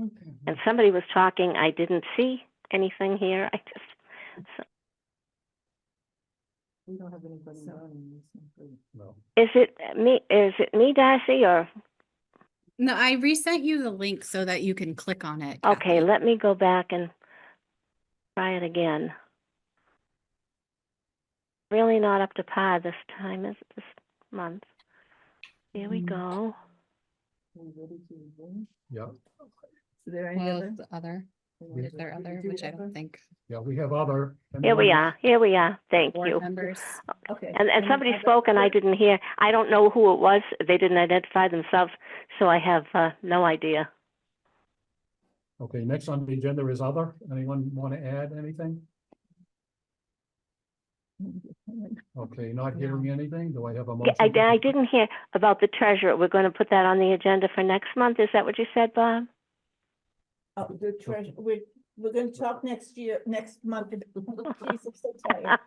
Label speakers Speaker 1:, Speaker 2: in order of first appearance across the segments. Speaker 1: Okay.
Speaker 2: And somebody was talking, I didn't see anything here, I just, so-
Speaker 1: We don't have anybody
Speaker 3: So-
Speaker 1: running. this one, please.
Speaker 4: No.
Speaker 2: is it me, is it me, Darcy, or,
Speaker 3: No, I resent you the link so that you can click on it.
Speaker 2: okay,
Speaker 3: Kathy.
Speaker 2: let me go back and try it again. Really not up to par this time, is this month. Here we
Speaker 3: Mm.
Speaker 2: go.
Speaker 1: We ready to begin?
Speaker 4: Yeah,
Speaker 1: Is there any
Speaker 3: Well,
Speaker 1: other?
Speaker 3: the other,
Speaker 1: Anyone
Speaker 3: is there
Speaker 1: ready to
Speaker 3: other,
Speaker 1: do
Speaker 3: which I
Speaker 1: other?
Speaker 3: don't think,
Speaker 4: yeah, we have other.
Speaker 2: Here we
Speaker 4: amendments.
Speaker 2: are, here we are, thank
Speaker 3: board
Speaker 2: you.
Speaker 3: members.
Speaker 1: Okay.
Speaker 2: And, and
Speaker 1: any
Speaker 2: somebody
Speaker 1: other-
Speaker 2: spoke and I didn't hear. I don't know who it was. They didn't identify themselves, so I have, uh, no idea.
Speaker 4: Okay, next on the agenda is other. Anyone want to add anything? Okay, not hearing anything. Do I have a
Speaker 2: Yeah,
Speaker 4: motion?
Speaker 2: I,
Speaker 4: to-
Speaker 2: I didn't hear about the treasurer. We're gonna put that on the agenda for next month. Is that what you said, Bob?
Speaker 5: Oh, the treasure, we're, we're gonna talk next year, next month. Jeez, I'm so tired.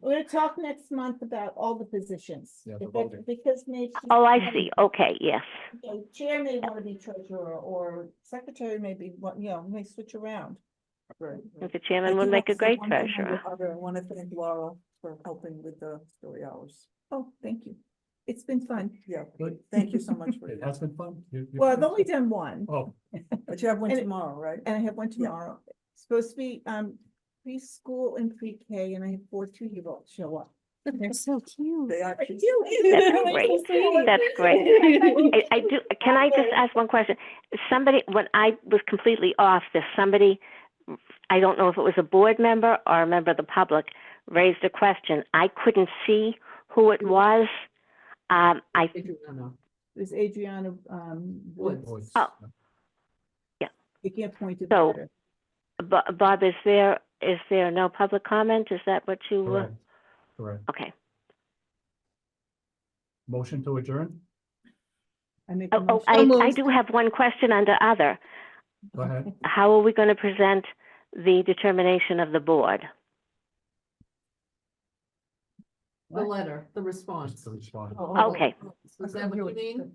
Speaker 5: We're gonna talk next month about all the positions.
Speaker 4: Yeah, the
Speaker 5: because-
Speaker 4: voting.
Speaker 5: Because maybe.
Speaker 2: Oh, I see. Okay, yes.
Speaker 5: uh, Chair may wanna be treasurer or secretary may be, one- you know, may switch around.
Speaker 2: I
Speaker 1: Right,
Speaker 2: think
Speaker 1: right.
Speaker 2: The
Speaker 5: I
Speaker 2: chairman
Speaker 5: do
Speaker 2: would
Speaker 5: have
Speaker 2: make a
Speaker 5: to say
Speaker 2: great
Speaker 5: one thing on the
Speaker 2: treasurer.
Speaker 5: other.
Speaker 1: I want to thank Laura for helping with the story hours.
Speaker 5: Oh, thank you. It's been fun.
Speaker 1: Yeah,
Speaker 4: Good.
Speaker 1: thank you so much for
Speaker 4: It has
Speaker 1: that.
Speaker 4: been fun. You- you-
Speaker 5: Well, I've only done one
Speaker 4: Oh,
Speaker 1: But you have one
Speaker 5: And it-
Speaker 1: tomorrow, right?
Speaker 5: and I have one
Speaker 1: Yeah.
Speaker 5: tomorrow. It's Supposed to be, um, preschool and pre-K and I have four two-year-olds show up.
Speaker 3: They're so cute.
Speaker 1: They
Speaker 5: That's
Speaker 1: actually.
Speaker 2: great. That's great. I, I do, can I just ask one question? Somebody, when I was completely off this, somebody, I don't know if it was a board member or a member of the public, raised a question. I couldn't see who it was. Um, I,
Speaker 5: This Adriana, um, Woods.
Speaker 4: voice.
Speaker 2: Oh.
Speaker 5: You can't point to
Speaker 2: So-
Speaker 5: that.
Speaker 2: Bo- Bob, is there, is there no public comment? Is that what you, uh,
Speaker 4: Correct. Correct.
Speaker 2: okay.
Speaker 4: Motion to adjourn?
Speaker 5: I make a
Speaker 2: Oh, oh,
Speaker 5: motion.
Speaker 2: I, I do have one question under other.
Speaker 4: Go ahead.
Speaker 2: How are we going to present the determination of the board?
Speaker 6: The
Speaker 5: What?
Speaker 6: letter, the
Speaker 4: Just
Speaker 6: response.
Speaker 4: to respond.
Speaker 1: Oh,
Speaker 2: Okay.
Speaker 6: Is that what you mean?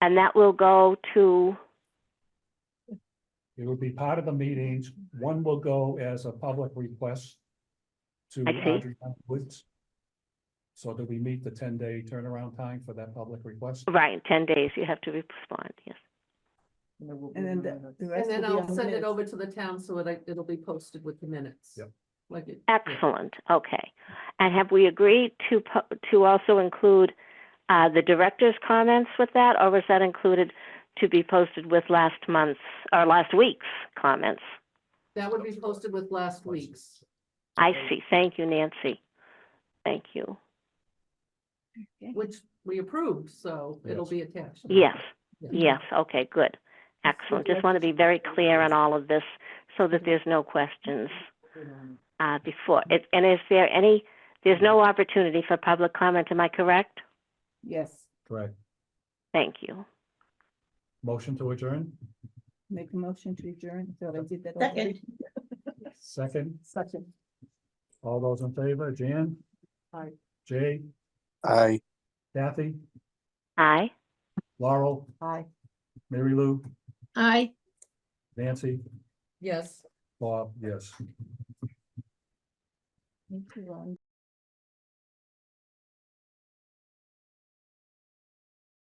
Speaker 2: And that will go to,
Speaker 4: It will be part of the meetings. One will go as a public request to
Speaker 2: I see.
Speaker 4: Adriana Woods. So that we meet the ten-day turnaround time for that public request.
Speaker 2: right, 10 days, you have to respond, yes.
Speaker 5: And then
Speaker 1: the-
Speaker 5: the- the
Speaker 6: And
Speaker 5: rest will
Speaker 6: then
Speaker 5: be
Speaker 6: I'll
Speaker 5: on the
Speaker 6: send it
Speaker 5: minutes.
Speaker 6: over to the town so it, it'll be posted with the minutes.
Speaker 4: Yep.
Speaker 6: Like it. yeah.
Speaker 2: Excellent, okay. And have we agreed to, po- to also include uh, the director's comments with that? Or was that included to be posted with last month's, or last week's comments?
Speaker 6: That would be posted with last week's.
Speaker 2: I see, thank you, Nancy. Thank you.
Speaker 6: Which we approved, so it'll
Speaker 4: Yes.
Speaker 6: be attached.
Speaker 2: Yes,
Speaker 6: Yeah.
Speaker 2: yes, okay, good. Excellent, just want to be very clear on all of this so that there's no questions uh, before. It- And is there any, there's no opportunity for public comment, am I correct?
Speaker 5: Yes,
Speaker 4: Correct.
Speaker 2: Thank you.
Speaker 4: Motion to adjourn?
Speaker 5: make a motion to adjourn, so I did that.
Speaker 4: Second?
Speaker 1: Second.
Speaker 5: Second.
Speaker 4: All those in favor, Jan?
Speaker 1: Aye.
Speaker 4: Jay,
Speaker 7: Aye.
Speaker 4: Kathy,
Speaker 2: Aye?
Speaker 4: Laurel,
Speaker 1: Hi.
Speaker 4: Mary Lou,
Speaker 3: Aye.
Speaker 4: Nancy,
Speaker 6: Yes.
Speaker 4: Bob, yes.
Speaker 5: Thank you, Ron.